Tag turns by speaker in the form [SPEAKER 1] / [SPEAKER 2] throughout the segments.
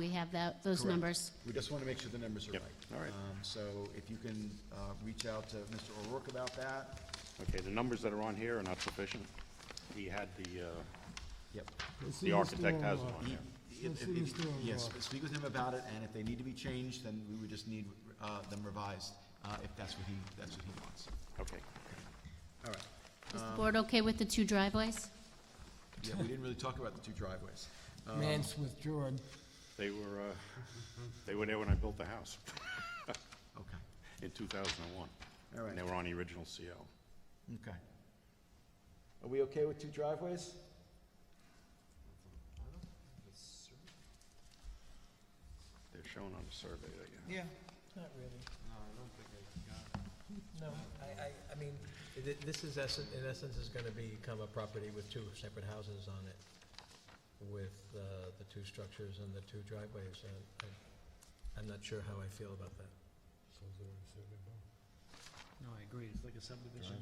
[SPEAKER 1] we have that, those
[SPEAKER 2] Correct.
[SPEAKER 1] numbers.
[SPEAKER 2] We just want to make sure the numbers are right.
[SPEAKER 3] Yep. All right.
[SPEAKER 2] Um, So if you can uh, reach out to Mr. O'Rourke about that,
[SPEAKER 3] Okay, the numbers that are on here are not sufficient. He had the, uh,
[SPEAKER 2] yep.
[SPEAKER 3] the architect has it on
[SPEAKER 2] He-
[SPEAKER 3] here.
[SPEAKER 2] if- if- if- Yes, speak with him about it, and if they need to be changed, then we would just need uh, them revised, uh, if that's what he, that's what he wants.
[SPEAKER 3] Okay.
[SPEAKER 2] All right.
[SPEAKER 1] Is the board okay with the two driveways?
[SPEAKER 2] Yeah, we didn't really talk about the two driveways.
[SPEAKER 4] Mance withdrew it.
[SPEAKER 3] They were, uh, they were there when I built the house
[SPEAKER 2] Okay,
[SPEAKER 3] in 2001.
[SPEAKER 2] All right.
[SPEAKER 3] And they were on the original CO.
[SPEAKER 2] okay. Are we okay with two driveways?
[SPEAKER 3] They're shown on the survey that you have.
[SPEAKER 5] Yeah, not really. No, I, I, I mean, th- this is essence, in essence, is gonna become a property with two separate houses on it, with, uh, the two structures and the two driveways, and I- I'm not sure how I feel about that.
[SPEAKER 6] No, I agree, it's like a subdivision.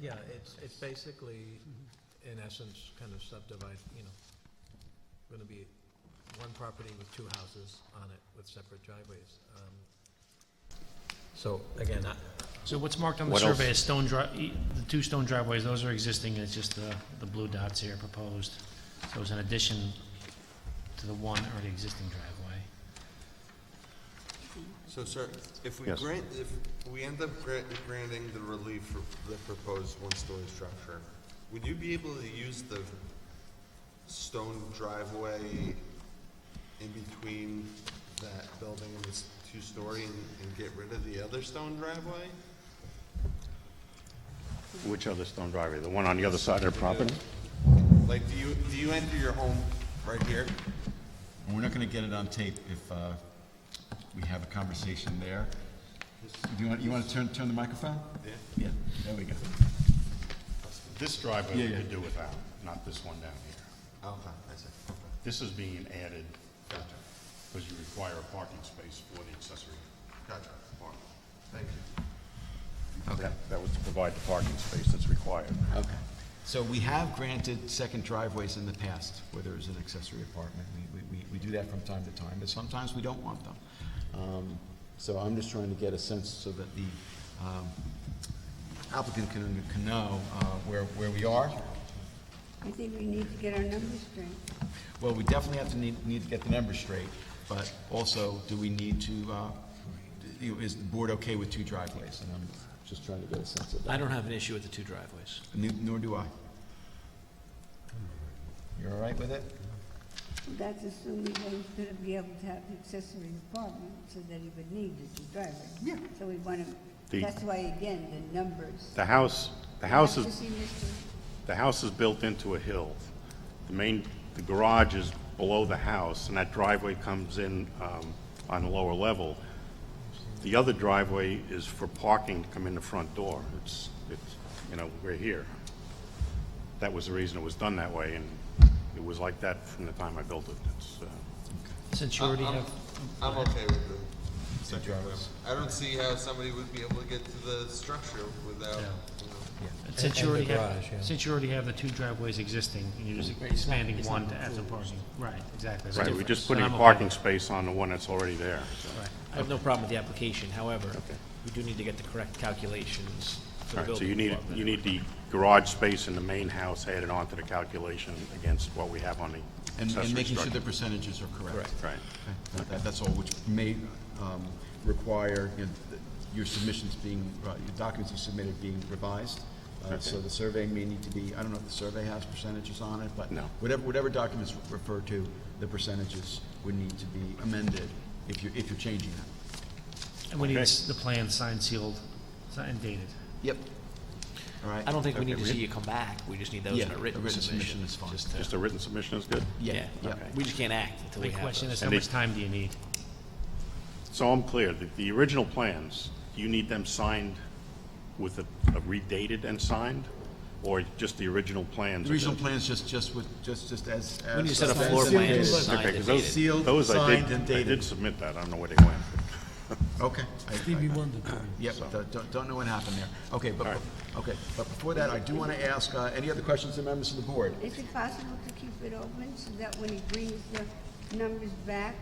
[SPEAKER 5] Yeah, it's, it's basically, in essence, kind of subdivide, you know, gonna be one property with two houses on it with separate driveways. Um, So, again, I,
[SPEAKER 6] So what's marked on the
[SPEAKER 3] What else?
[SPEAKER 6] survey is stone dri, e- the two stone driveways, those are existing, it's just the, the blue dots here proposed. So it's an addition to the one already existing driveway.
[SPEAKER 7] So, sir, if we
[SPEAKER 3] Yes.
[SPEAKER 7] grant, if we end up gra- granting the relief for the proposed one-story structure, would you be able to use the stone driveway in between that building and this two-story and, and get rid of the other stone driveway?
[SPEAKER 3] Which other stone driveway? The one on the other side of the property?
[SPEAKER 7] Like, do you, do you enter your home right here?
[SPEAKER 2] And we're not gonna get it on tape if uh, we have a conversation there. Do you want, you want to turn, turn the microphone? Yeah. Yeah, there we go.
[SPEAKER 3] This driveway
[SPEAKER 2] Yeah,
[SPEAKER 3] we
[SPEAKER 2] yeah.
[SPEAKER 3] could do without, not this one down here.
[SPEAKER 7] Okay, I see, okay.
[SPEAKER 3] This is being added because you require a parking space for the accessory
[SPEAKER 7] Gotcha.
[SPEAKER 3] apartment.
[SPEAKER 7] Thank you.
[SPEAKER 3] Okay. That was to provide the parking space that's required.
[SPEAKER 2] Okay. So we have granted second driveways in the past where there is an accessory apartment. We, we- we, we do that from time to time, but sometimes we don't want them. Um, So I'm just trying to get a sense so that the um, applicant can, can know uh, where, where we are.
[SPEAKER 8] I think we need to get our numbers straight.
[SPEAKER 2] Well, we definitely have to need, need to get the numbers straight, but also, do we need to, uh, you know, is the board okay with two driveways? And I'm just trying to get a sense of that.
[SPEAKER 6] I don't have an issue with the two driveways.
[SPEAKER 2] Ne- Nor do I. You're all right with it?
[SPEAKER 8] That's assuming that he's gonna be able to have an accessory apartment, so that he would need this driveway. Yeah. So we wanna,
[SPEAKER 3] The-
[SPEAKER 8] that's why, again, the numbers.
[SPEAKER 3] The house, the house
[SPEAKER 8] Have
[SPEAKER 3] is.
[SPEAKER 8] to see Mr.
[SPEAKER 3] The house is built into a hill. The main, the garage is below the house, and that driveway comes in um, on the lower level. The other driveway is for parking to come in the front door. It's, it's, you know, we're here. That was the reason it was done that way, and it was like that from the time I built it. It's, uh,
[SPEAKER 6] Since you already
[SPEAKER 7] I'm-
[SPEAKER 6] have,
[SPEAKER 7] I'm okay with it.
[SPEAKER 2] Two driveways.
[SPEAKER 7] I don't see how somebody would be able to get to the structure without, you know.
[SPEAKER 6] since you
[SPEAKER 5] And the
[SPEAKER 6] already have,
[SPEAKER 5] garage, yeah.
[SPEAKER 6] since you already have the two driveways existing, and you're just expanding one to add some parking. Right, exactly.
[SPEAKER 3] right, we're just putting a
[SPEAKER 6] a
[SPEAKER 3] parking space on the one that's already there. so.
[SPEAKER 9] I have no problem with the application, however, we do need to get the correct calculations for the
[SPEAKER 3] All right, so you
[SPEAKER 9] building
[SPEAKER 3] need,
[SPEAKER 9] department.
[SPEAKER 3] you need the garage space in the main house added onto the calculation against what we have on the
[SPEAKER 2] And, and
[SPEAKER 3] accessory
[SPEAKER 2] making sure the
[SPEAKER 3] structure.
[SPEAKER 2] percentages are correct.
[SPEAKER 3] Right.
[SPEAKER 2] That- that- That's all, which may um, require you know, th- your submissions being, uh, your documents you submitted being revised. Uh, So the survey may need to be, I don't know if the survey has percentages on it, but
[SPEAKER 3] No.
[SPEAKER 2] whatever, whatever documents refer to, the percentages would need to be amended if you're, if you're changing them.
[SPEAKER 6] And we need
[SPEAKER 3] Okay.
[SPEAKER 6] s- the plan signed, sealed, signed and dated.
[SPEAKER 2] Yep. All right?
[SPEAKER 9] I don't think we
[SPEAKER 3] Okay,
[SPEAKER 9] need to
[SPEAKER 3] we-
[SPEAKER 9] see you come back, we just need those
[SPEAKER 2] Yeah,
[SPEAKER 9] in a
[SPEAKER 2] a
[SPEAKER 9] written
[SPEAKER 2] written submission
[SPEAKER 9] submission.
[SPEAKER 2] is fine.
[SPEAKER 9] Just to-
[SPEAKER 3] Just a written submission is good?
[SPEAKER 2] Yeah, yeah.
[SPEAKER 9] We just can't act until we
[SPEAKER 6] My
[SPEAKER 9] have
[SPEAKER 6] question
[SPEAKER 9] those.
[SPEAKER 6] is, how
[SPEAKER 3] And
[SPEAKER 6] much
[SPEAKER 3] they-
[SPEAKER 6] time do you need?
[SPEAKER 3] So I'm clear, the, the original plans, you need them signed with a a redated and signed? Or just the original plans?
[SPEAKER 2] The
[SPEAKER 3] are
[SPEAKER 2] regional
[SPEAKER 3] good?
[SPEAKER 2] plan's just, just with, just, just as.
[SPEAKER 9] We need to set a
[SPEAKER 2] as-
[SPEAKER 9] floor
[SPEAKER 2] as-
[SPEAKER 9] plan,
[SPEAKER 2] as-
[SPEAKER 9] signed
[SPEAKER 3] Okay,
[SPEAKER 9] and
[SPEAKER 3] 'cause those-
[SPEAKER 9] dated.
[SPEAKER 2] Sealed,
[SPEAKER 3] those I did-
[SPEAKER 2] signed, and
[SPEAKER 3] I did
[SPEAKER 2] dated.
[SPEAKER 3] submit that, I don't know where they went.
[SPEAKER 2] Okay. I- I-
[SPEAKER 4] Stevie Wonder.
[SPEAKER 2] Yep, don't- don't, don't know what happened there. Okay, but, okay, but before that, I do want to ask, uh, any other questions to members of the board?
[SPEAKER 8] Is it possible to keep it open, so that when he brings the numbers back,